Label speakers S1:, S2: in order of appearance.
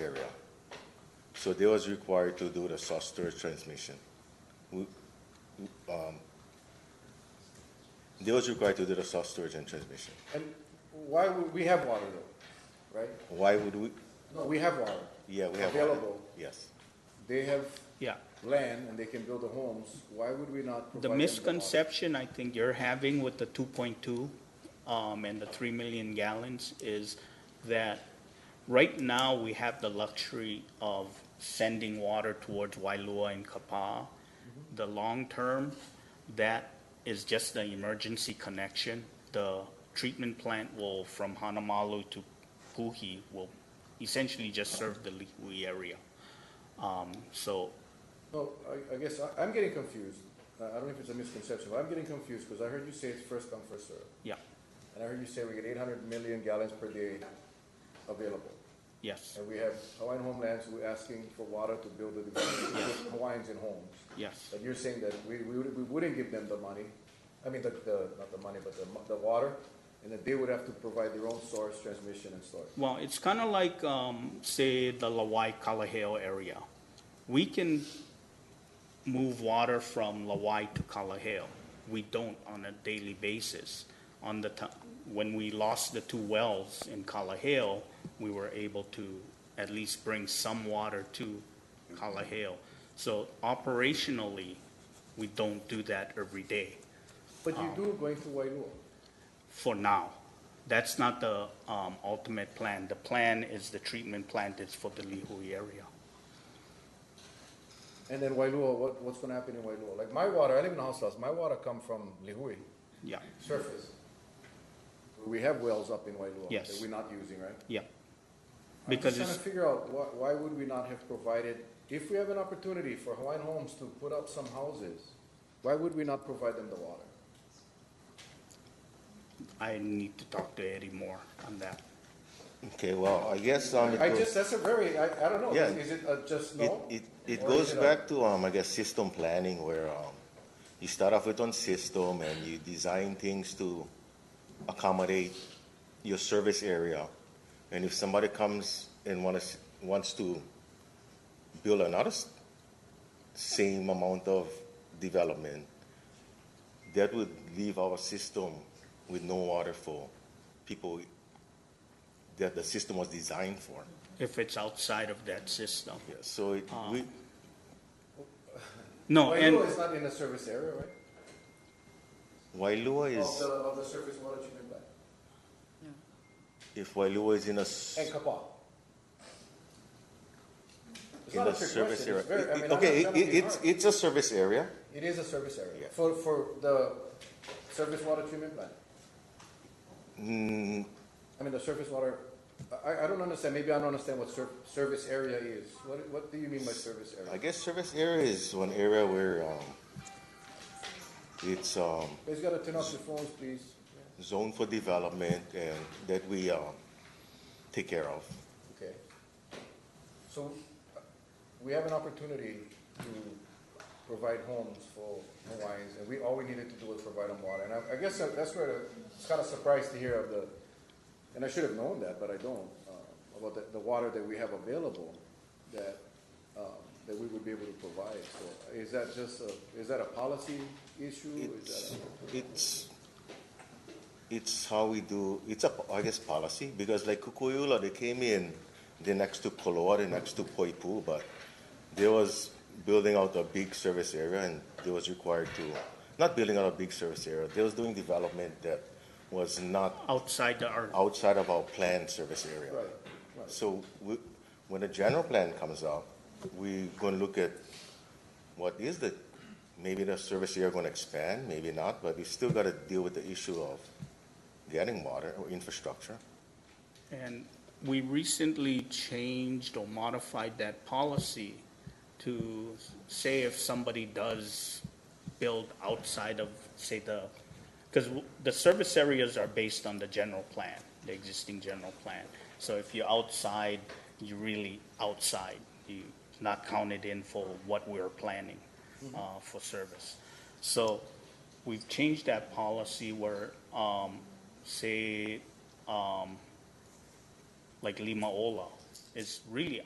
S1: area. So they was required to do the soft storage transmission. We- we- um, They was required to do the soft storage and transmission.
S2: And why would, we have water though, right?
S1: Why would we,
S2: No, we have water.
S1: yeah, we have.
S2: Available.
S1: Yes.
S2: They have
S3: Yeah.
S2: land and they can build the homes. Why would we not provide
S3: The
S2: them water?
S3: misconception I think you're having with the 2.2 um, and the 3 million gallons is that right now we have the luxury of sending water towards Wailua and Kapaa.
S2: Mm-hmm.
S3: The long term, that is just the emergency connection. The treatment plant will, from Hanamalu to Puhi, will essentially just serve the Lihue area. Um, So
S2: No, I, I guess I, I'm getting confused. I I don't know if it's a misconception, but I'm getting confused because I heard you say it's first come, first served.
S3: Yeah,
S2: And I heard you say we get eight hundred million gallons per day available.
S3: yes,
S2: And we have Hawaiian Homelands, we're asking for water to build the, to put Hawaiians in homes.
S3: yes,
S2: But you're saying that we, we would- we wouldn't give them the money, I mean, the, the, not the money, but the, mo- the water, and that they would have to provide their own source, transmission, and storage.
S3: Well, it's kind of like, um, say, the Lawai Kalaheo area. We can move water from Lawai to Kalaheo. We don't on a daily basis. On the ti- when we lost the two wells in Kalaheo, we were able to at least bring some water to Kalaheo. So operationally, we don't do that every day.
S2: But you
S3: Oh.
S2: do going to Wailua.
S3: for now. That's not the um, ultimate plan. The plan is the treatment plant is for the Lihui area.
S2: And then Wailua, what, what's gonna happen in Wailua? Like, my water, I live in a house house, my water come from Lihue,
S3: Yeah,
S2: surface. We have wells up in Wailua.
S3: Yes.
S2: That we're not using, right?
S3: yeah. Because
S2: I'm just
S3: it's,
S2: trying to figure out why, why would we not have provided, if we have an opportunity for Hawaiian Homes to put up some houses, why would we not provide them the water?
S3: I need to talk to Eddie more on that.
S1: Okay, well, I guess, um, it
S2: I
S1: goes-
S2: just, that's a very, I, I don't know,
S1: Yeah.
S2: is it a just
S1: It,
S2: no?
S1: it, it
S2: Or
S1: goes
S2: is a-
S1: back to, um, I guess, system planning where, um, you start off with one system and you design things to accommodate your service area. And if somebody comes and wants, wants to build another s- same amount of development, that would leave our system with no water for people that the system was designed for.
S3: If it's outside of that system.
S1: Yeah, so it, we,
S3: No, and
S2: Wailua is not in the service area, right?
S1: Wailua
S2: Of
S1: is,
S2: the, of the surface water treatment plant,
S1: if Wailua is in a, s-
S2: and Kapaa. It's
S1: in
S2: not a
S1: a
S2: trick
S1: service
S2: question,
S1: area.
S2: it's very- I
S1: It-
S2: mean,
S1: it-
S2: I'm not
S1: Okay,
S2: trying
S1: it-
S2: to be
S1: it's,
S2: hard.
S1: it's a service area,
S2: It is a service area,
S1: Yeah.
S2: for, for the surface water treatment plant.
S1: Mm,
S2: I mean, the surface water, I, I don't understand, maybe I don't understand what sur- service area is. What, what do you mean by service
S1: I
S2: area?
S1: guess service area is one area where, um, it's, um,
S2: Guys, you gotta turn off your phones, please.
S1: zoned for development and that we, um, take care of.
S2: Okay. So, uh, we have an opportunity to provide homes for Hawaiians, and we, all we needed to do was provide them water. And I, I guess that- that's where the- it's kinda surprised to hear of the, and I should have known that, but I don't, uh, about the, the water that we have available that, um, that we would be able to provide. So, is that just a, is that a policy issue? Is
S1: It's,
S2: that a?
S1: it's, it's how we do, it's a, I guess, policy, because like Kukuyula, they came in, they're next to Koloa, they're next to Poipu, but they was building out a big service area and they was required to, not building out a big service area, they was doing development that was not
S3: outside the, our-
S1: outside of our planned service area.
S2: Right, right.
S1: So we, when the general plan comes out, we're gonna look at what is the, maybe the service area gonna expand, maybe not, but we still gotta deal with the issue of getting water or infrastructure.
S3: and we recently changed or modified that policy to say if somebody does build outside of, say, the, because the service areas are based on the general plan, the existing general plan. So if you're outside, you're really outside, you not counted in for what we're planning uh, for service. So we've changed that policy where, um, say, um, like Lima Ola, is really